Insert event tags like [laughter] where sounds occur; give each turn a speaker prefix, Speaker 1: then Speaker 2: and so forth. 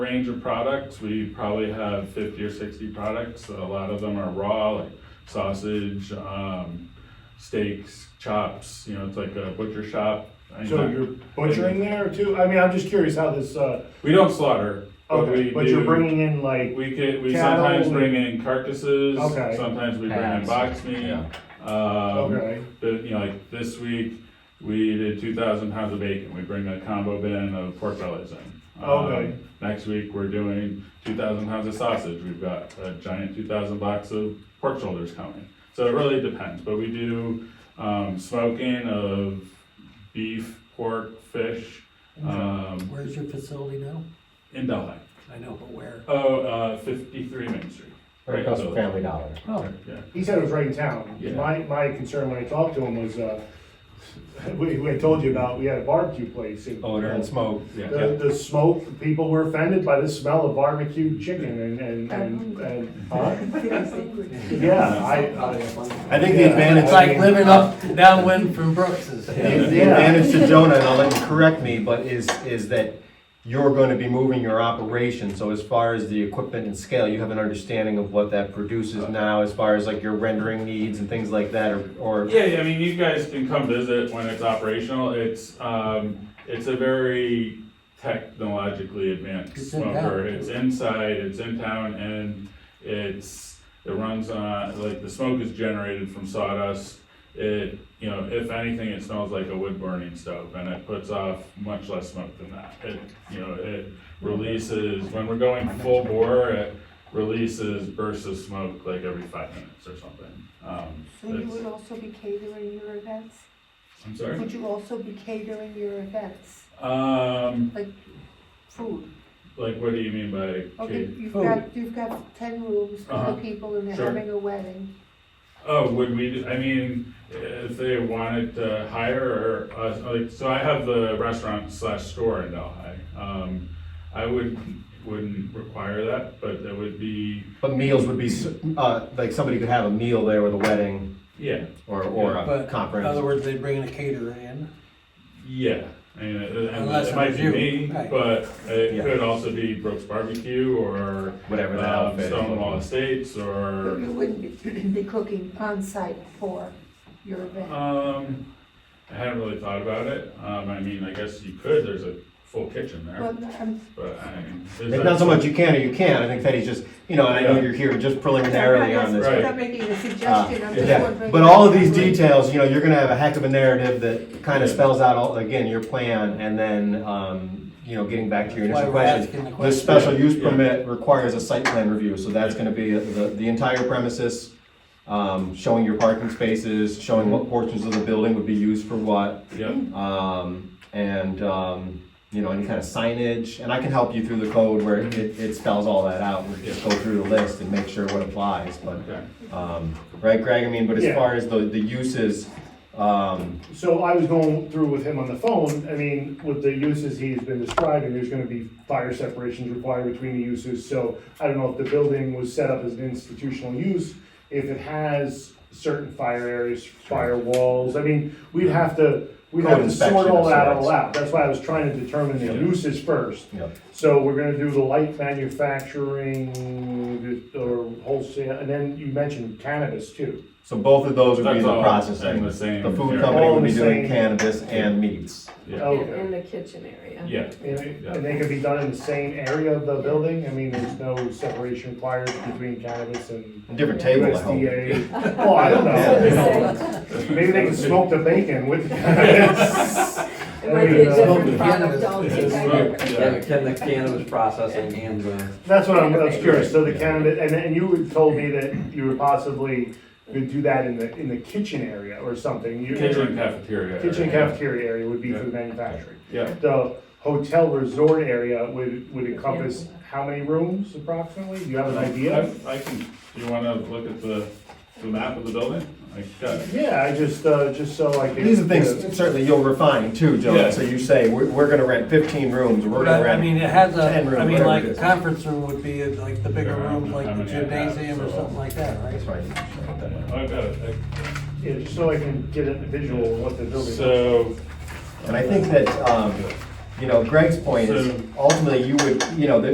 Speaker 1: range of products. We probably have fifty or sixty products. A lot of them are raw, like sausage, um, steaks, chops, you know, it's like a butcher shop. I
Speaker 2: So
Speaker 1: mean,
Speaker 2: you're butchering there too? I mean, I'm just curious how this, uh,
Speaker 1: We don't slaughter, but we
Speaker 2: okay, but you're
Speaker 1: do-
Speaker 2: bringing in like,
Speaker 1: We could, we
Speaker 2: cattle,
Speaker 1: sometimes
Speaker 2: we-
Speaker 1: bring in carcasses,
Speaker 2: Okay.
Speaker 1: sometimes we bring in
Speaker 3: Calves.
Speaker 1: box meat.
Speaker 3: Yeah.
Speaker 1: Um,
Speaker 2: okay,
Speaker 1: the, you know, like this week, we did two thousand pounds of bacon, we bring a combo bin of pork bellies in. Um,
Speaker 2: Okay.
Speaker 1: Next week, we're doing two thousand pounds of sausage, we've got a giant two thousand box of pork shoulders coming. So it really depends, but we do, um, smoking of beef, pork, fish, um,
Speaker 4: Where's your facility now?
Speaker 1: in Delhi.
Speaker 4: I know, but where?
Speaker 1: Oh, uh, fifty-three Main Street.
Speaker 3: Right across from
Speaker 1: so-
Speaker 3: Family Dollar.
Speaker 4: Oh,
Speaker 1: Yeah.
Speaker 2: he said it was right in town.
Speaker 1: Yeah.
Speaker 2: My, my concern when I talked to him was, uh, [laughs] we, we had told you about, we had a barbecue place. and-
Speaker 1: Oh,
Speaker 3: smoke.
Speaker 2: The, the smoke, people were offended by the smell of barbecue chicken and, and, and,
Speaker 1: [laughs]
Speaker 2: and, huh? Yeah, I, I,
Speaker 5: I think the
Speaker 2: Yeah.
Speaker 5: advantage,
Speaker 4: It's like living up downwind from Brooks's.
Speaker 5: [laughs] the the
Speaker 2: Yeah.
Speaker 5: advantage to Jonah, and I'll let you correct me, but is, is that you're gonna be moving your operation, so as far as the equipment and scale, you have an understanding of what that produces now, as far as like your rendering needs and things like that, or, or
Speaker 1: Yeah, yeah, I mean, you guys can come visit when it's operational. It's, um, it's a very technologically advanced
Speaker 4: It's in town.
Speaker 1: smoker. It's inside, it's in town, and it's, it runs on, like, the smoke is generated from sawdust. It, you know, if anything, it smells like a wood burning stove, and it puts off much less smoke than that. It, you know, it releases, when we're going full bore, it releases bursts of smoke like every five minutes or something. Um,
Speaker 6: So you
Speaker 1: it's-
Speaker 6: would also be catering your events?
Speaker 1: I'm sorry?
Speaker 6: Would you also be catering your events,
Speaker 1: Um,
Speaker 6: food?
Speaker 1: like, what do you mean by
Speaker 6: Okay,
Speaker 1: cake?
Speaker 6: you've got, you've got ten rooms for
Speaker 1: Uh-huh.
Speaker 6: the people and they're
Speaker 1: Sure.
Speaker 6: having a wedding.
Speaker 1: Oh, would we, do- I mean, if they wanted to hire or, uh, like, so I have the restaurant slash store in Delhi. Um, I would, wouldn't require that, but that would be,
Speaker 5: But meals would be, s- uh, like somebody could have a meal there with a wedding
Speaker 1: yeah,
Speaker 5: or, or a
Speaker 4: But in other
Speaker 5: conference.
Speaker 4: words, they bring in a caterer in.
Speaker 1: yeah. I mean, it- it-
Speaker 4: Unless
Speaker 1: it might
Speaker 4: it's
Speaker 1: be
Speaker 4: you,
Speaker 1: me,
Speaker 4: right.
Speaker 1: but it
Speaker 5: Yeah.
Speaker 1: could also be Brooks Barbecue or,
Speaker 5: Whatever the
Speaker 1: um,
Speaker 5: outfit. is.
Speaker 1: Stonewall Estates
Speaker 6: But
Speaker 1: or,
Speaker 6: you wouldn't be- be cooking on site for your
Speaker 5: Oh.
Speaker 6: event.
Speaker 1: um, I hadn't really thought about it. Um, I mean, I guess you could, there's a full kitchen there.
Speaker 6: Well, I'm,
Speaker 1: But I mean, there's
Speaker 5: It's not so much you can or you can't, I think Teddy's just, you know, and I know you're here just
Speaker 6: I'm
Speaker 5: preliminarily
Speaker 6: not,
Speaker 5: on this. Uh,
Speaker 1: Right.
Speaker 6: I'm not making a suggestion, I'm just
Speaker 5: Yeah,
Speaker 6: wondering.
Speaker 5: but all of these details, you know, you're gonna have a heck of a narrative that kind of spells out all, again, your plan, and then, um, you know, getting back to your
Speaker 4: That's why
Speaker 5: initial
Speaker 4: we're
Speaker 5: question.
Speaker 4: asking the
Speaker 5: The
Speaker 4: question.
Speaker 5: special use
Speaker 1: Yeah.
Speaker 5: permit requires a site plan review, so that's gonna be the, the entire premises, um, showing your parking spaces, showing
Speaker 4: Mm-hmm.
Speaker 5: what portions of the building would be used for what,
Speaker 1: Yeah,
Speaker 5: um, and, um, you know, any kind of signage, and I can help you through the code where it, it spells all that out, we just go through the list and make sure what applies, but
Speaker 1: okay.
Speaker 5: um, right, Greg? I mean, but
Speaker 2: Yeah.
Speaker 5: as far as the, the uses, um,
Speaker 2: So I was going through with him on the phone, I mean, with the uses he's been describing, there's gonna be fire separations required between the uses, so I don't know if the building was set up as an institutional use, if it has certain fire areas, fire walls, I mean, we'd have to, we'd have
Speaker 5: Code
Speaker 2: to
Speaker 5: inspection
Speaker 2: sort all
Speaker 5: of
Speaker 2: that all
Speaker 5: sorts.
Speaker 2: out, that's why I was trying to determine the uses first.
Speaker 5: you know,
Speaker 2: So we're gonna do the light manufacturing, or wholesale, and then you mentioned cannabis too.
Speaker 5: so both of those would be
Speaker 1: That's
Speaker 5: the
Speaker 1: all in
Speaker 5: processing.
Speaker 1: the same.
Speaker 5: The food
Speaker 1: area.
Speaker 5: company
Speaker 2: All
Speaker 5: would be
Speaker 2: the
Speaker 5: doing
Speaker 2: same.
Speaker 5: cannabis and meats.
Speaker 1: Yeah,
Speaker 7: In,
Speaker 2: Okay.
Speaker 7: in the kitchen area.
Speaker 1: yeah,
Speaker 2: And and they could be done in the same area of the building? I mean, there's no separation required between cannabis and
Speaker 5: Different table, I hope.
Speaker 2: USDA? Well, Oh, I don't [laughs] know.
Speaker 7: So the
Speaker 2: [laughs]
Speaker 7: same-
Speaker 2: Maybe they can smoke the bacon with cannabis.
Speaker 7: [laughs] It might be a different
Speaker 4: Cannabis.
Speaker 7: product altogether.
Speaker 1: Smoke, yeah.
Speaker 8: Can can the cannabis processing and the
Speaker 2: That's what I'm, I was curious. So the cannabis, and, and you had told me that you were possibly could do that in the, in the kitchen area or something.
Speaker 1: [laughs]
Speaker 2: You-
Speaker 1: kitchen cafeteria. area.
Speaker 2: Kitchen cafeteria area would be for the manufacturing.
Speaker 1: Yeah,
Speaker 2: The hotel resort area would, would encompass how many rooms approximately? Do you have an idea?
Speaker 1: I- I can, do you wanna look at the, the map of the building? I got it.
Speaker 2: Yeah, I just, uh, just so I can.
Speaker 5: These are things certainly you'll refine too,
Speaker 1: Yeah.
Speaker 5: Joe. So you say, we're, we're gonna rent fifteen rooms, we're gonna
Speaker 4: But I mean,
Speaker 5: rent.
Speaker 4: it has a,
Speaker 5: Ten room,
Speaker 4: I mean,
Speaker 5: whatever
Speaker 4: like
Speaker 5: it
Speaker 4: a
Speaker 5: is.
Speaker 4: conference room would be like the bigger
Speaker 1: Yeah, I don't
Speaker 4: rooms,
Speaker 1: know
Speaker 4: like
Speaker 1: how
Speaker 4: the
Speaker 1: many I have,
Speaker 4: gymnasium or
Speaker 1: so-
Speaker 4: something like that, right?
Speaker 5: That's right.
Speaker 1: I got it.
Speaker 2: Yeah, just so I can get a visual of what the building. is.
Speaker 1: So,
Speaker 5: And I think that, um, you know, Greg's point
Speaker 1: So-
Speaker 5: is ultimately you would, you know, the,